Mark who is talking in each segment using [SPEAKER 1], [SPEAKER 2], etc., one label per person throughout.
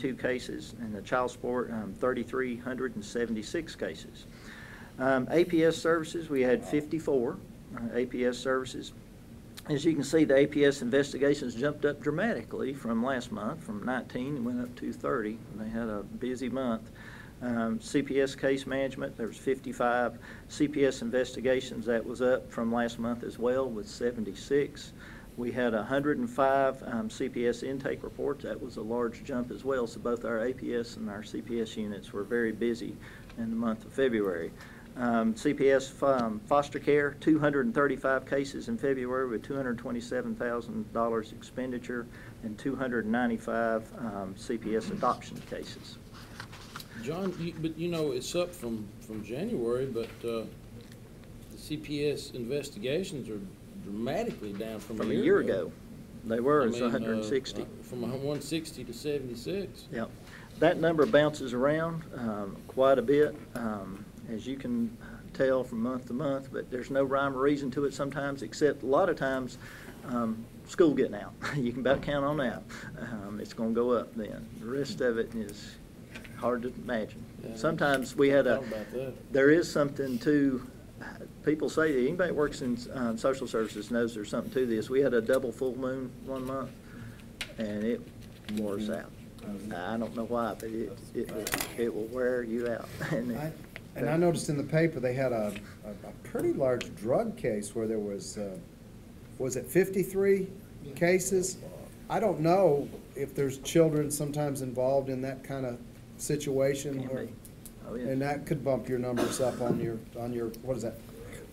[SPEAKER 1] two cases, and the child support, um, 3,376 cases. Um, APS services, we had 54 uh, APS services. As you can see, the APS investigations jumped up dramatically from last month, from 19, and went up to 30. They had a busy month. Um, CPS case management, there was 55. CPS investigations, that was up from last month as well, with 76. We had 105 um, CPS intake reports. That was a large jump as well. So both our APS and our CPS units were very busy in the month of February. Um, CPS fo- um, foster care, 235 cases in February with $227,000 expenditure and 295 um, CPS adoption cases.
[SPEAKER 2] John, you- but you know, it's up from, from January, but uh, the CPS investigations are dramatically down from a year ago.
[SPEAKER 1] They were,
[SPEAKER 2] I
[SPEAKER 1] it's
[SPEAKER 2] mean, uh,
[SPEAKER 1] 160.
[SPEAKER 2] From a hun- 160 to 76.
[SPEAKER 1] Yeah, that number bounces around um, quite a bit, um, as you can tell from month to month, but there's no rhyme or reason to it sometimes, except a lot of times, um, school getting out. You can about count on that. Um, It's going to go up then. The rest of it is hard to imagine.
[SPEAKER 2] Yeah.
[SPEAKER 1] Sometimes we had a,
[SPEAKER 2] Thought about that.
[SPEAKER 1] there is something to, people say, that anybody that works in um, social services knows there's something to this. We had a double full moon one month, and it wore us out.
[SPEAKER 3] Mm-hmm.
[SPEAKER 1] I don't know why, but it, it, will- it will wear you out. And
[SPEAKER 3] I-
[SPEAKER 1] it-
[SPEAKER 3] And I noticed in the paper, they had a, a a pretty large drug case where there was, uh, was it fifty-three cases? I don't know if there's children sometimes involved in that kind of situation.
[SPEAKER 1] Can
[SPEAKER 3] where-
[SPEAKER 1] be. Oh, yeah.
[SPEAKER 3] And that could bump your numbers up on your, on your, what is that?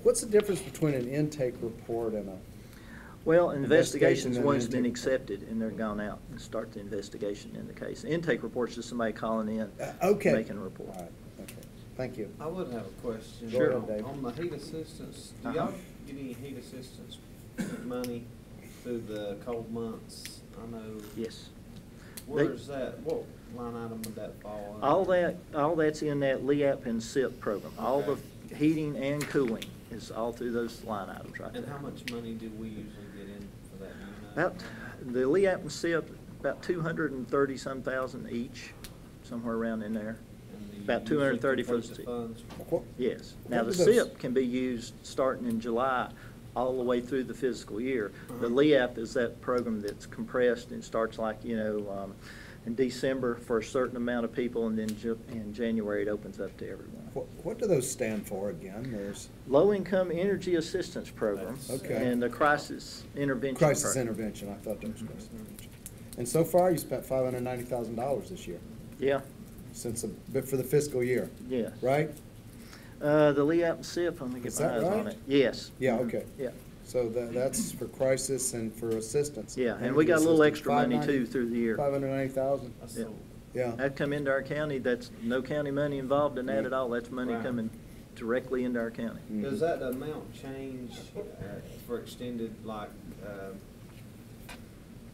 [SPEAKER 3] What's the difference between an intake report and a,
[SPEAKER 1] Well,
[SPEAKER 3] Investigation
[SPEAKER 1] investigations,
[SPEAKER 3] and
[SPEAKER 1] one's been
[SPEAKER 3] intake.
[SPEAKER 1] accepted, and they're gone out and start the investigation in the case. Intake reports is somebody calling in.
[SPEAKER 3] uh, okay.
[SPEAKER 1] Making a report. Oh.
[SPEAKER 3] All right, okay, thank you.
[SPEAKER 4] I would have a question.
[SPEAKER 3] Sure.
[SPEAKER 4] On- On the heat assistance, do
[SPEAKER 1] Uh-huh.
[SPEAKER 4] y'all get any heat assistance money through the cold months? I know.
[SPEAKER 1] Yes. They-
[SPEAKER 4] Where's that, what line item would that fall under?
[SPEAKER 1] All that, all that's in that LEAP and SIP program. All the
[SPEAKER 4] Okay.
[SPEAKER 1] heating and cooling is all through those line items right there.
[SPEAKER 4] And how much money do we usually get in for that? do you know?
[SPEAKER 1] About, the LEAP and SIP, about two hundred and thirty-some thousand each, somewhere around in there.
[SPEAKER 4] And do you
[SPEAKER 1] About
[SPEAKER 4] usually
[SPEAKER 1] 230 for
[SPEAKER 4] complete
[SPEAKER 1] the
[SPEAKER 4] the
[SPEAKER 1] city.
[SPEAKER 4] funds?
[SPEAKER 3] What-
[SPEAKER 1] Yes. Now, the
[SPEAKER 3] What do those-
[SPEAKER 1] SIP can be used starting in July, all the way through the fiscal year. The
[SPEAKER 4] Uh-huh.
[SPEAKER 1] LEAP is that program that's compressed and starts like, you know, um, in December for a certain amount of people, and then Ju- in January, it opens up to everyone.
[SPEAKER 3] What, what do those stand for again? There's
[SPEAKER 1] Low-income energy assistance program.
[SPEAKER 4] That's-
[SPEAKER 3] Okay.
[SPEAKER 1] And the crisis intervention.
[SPEAKER 3] crisis
[SPEAKER 1] program.
[SPEAKER 3] intervention, I thought that was crisis intervention. And so far, you spent five hundred and ninety thousand dollars this year.
[SPEAKER 1] Yeah,
[SPEAKER 3] since, the- but for the fiscal year,
[SPEAKER 1] yeah.
[SPEAKER 3] right?
[SPEAKER 1] Uh, the LEAP and SIP, I'm gonna get
[SPEAKER 3] Is
[SPEAKER 1] my
[SPEAKER 3] that
[SPEAKER 1] eyes on
[SPEAKER 3] right?
[SPEAKER 1] it. Yes.
[SPEAKER 3] Yeah, okay.
[SPEAKER 1] Mm-hmm. Yeah,
[SPEAKER 3] So tha- that's for crisis and for assistance.
[SPEAKER 1] yeah, and we got a little extra money too through the year.
[SPEAKER 3] Five hundred ninety thousand,
[SPEAKER 4] That's
[SPEAKER 1] Yeah.
[SPEAKER 4] so-
[SPEAKER 3] yeah.
[SPEAKER 1] That come into our county, that's no county money involved in that at all, that's money
[SPEAKER 4] Right.
[SPEAKER 1] coming directly into our county.
[SPEAKER 3] Mm.
[SPEAKER 4] Does that amount change uh, for extended, like, um,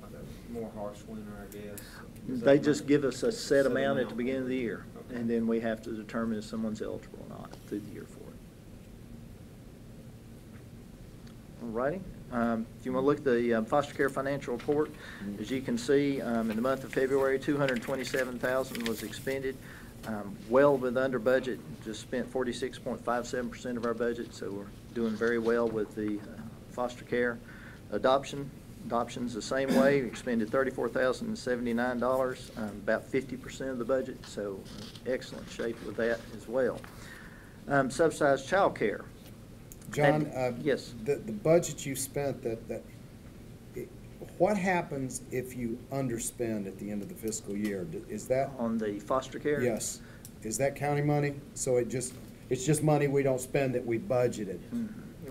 [SPEAKER 4] like a more harsh winter, I guess? Does that
[SPEAKER 1] They just
[SPEAKER 4] amount-
[SPEAKER 1] give us a set amount at the
[SPEAKER 4] amount?
[SPEAKER 1] beginning of the year,
[SPEAKER 4] Okay.
[SPEAKER 1] and then we have to determine if someone's eligible or not through the year for it. All righty. Um, If you want to look at the um, foster care financial report, as you can see, um, in the month of February, 227000 was expended, um, well with under budget, just spent 46.57% of our budget, so we're doing very well with the uh, foster care. Adoption, adoption's the same way, We expended $34,079, um, about 50% of the budget, so uh, excellent shape with that as well. Um, Subsidized childcare,
[SPEAKER 3] John,
[SPEAKER 1] that-
[SPEAKER 3] uh,
[SPEAKER 1] yes.
[SPEAKER 3] The, the budget you spent, that, that, it- what happens if you underspend at the end of the fiscal year? D- Is that,
[SPEAKER 1] on the foster care?
[SPEAKER 3] yes, is that county money? So it just, it's just money we don't spend that we budgeted?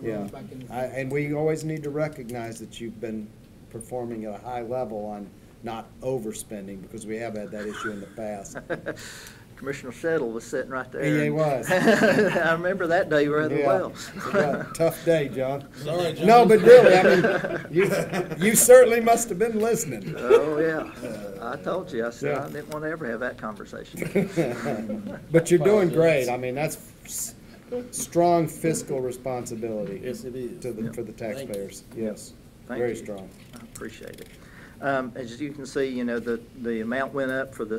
[SPEAKER 3] Yeah, I- and we always need to recognize that you've been performing at a high level on not overspending, because we have had that issue in the past.
[SPEAKER 1] Commissioner Settle was sitting right there.
[SPEAKER 3] Yeah, he E was.
[SPEAKER 1] I remember that day rather
[SPEAKER 3] Yeah.
[SPEAKER 1] well.
[SPEAKER 3] Yeah, Tough day, John.
[SPEAKER 2] Sorry, John.
[SPEAKER 3] No, but really, I mean, you, you certainly must have been listening.
[SPEAKER 1] Oh, yeah. I told you, I said, I
[SPEAKER 3] Uh, Yeah.
[SPEAKER 1] didn't want to ever have that conversation.
[SPEAKER 3] But you're doing great, I mean, that's s- strong fiscal responsibility.
[SPEAKER 2] Yes, it is.
[SPEAKER 3] To the, for the
[SPEAKER 2] Thank you.
[SPEAKER 3] taxpayers, yes,
[SPEAKER 1] Thank
[SPEAKER 3] very
[SPEAKER 1] you.
[SPEAKER 3] strong.
[SPEAKER 1] I appreciate it. Um, As you can see, you know, the, the amount went up for the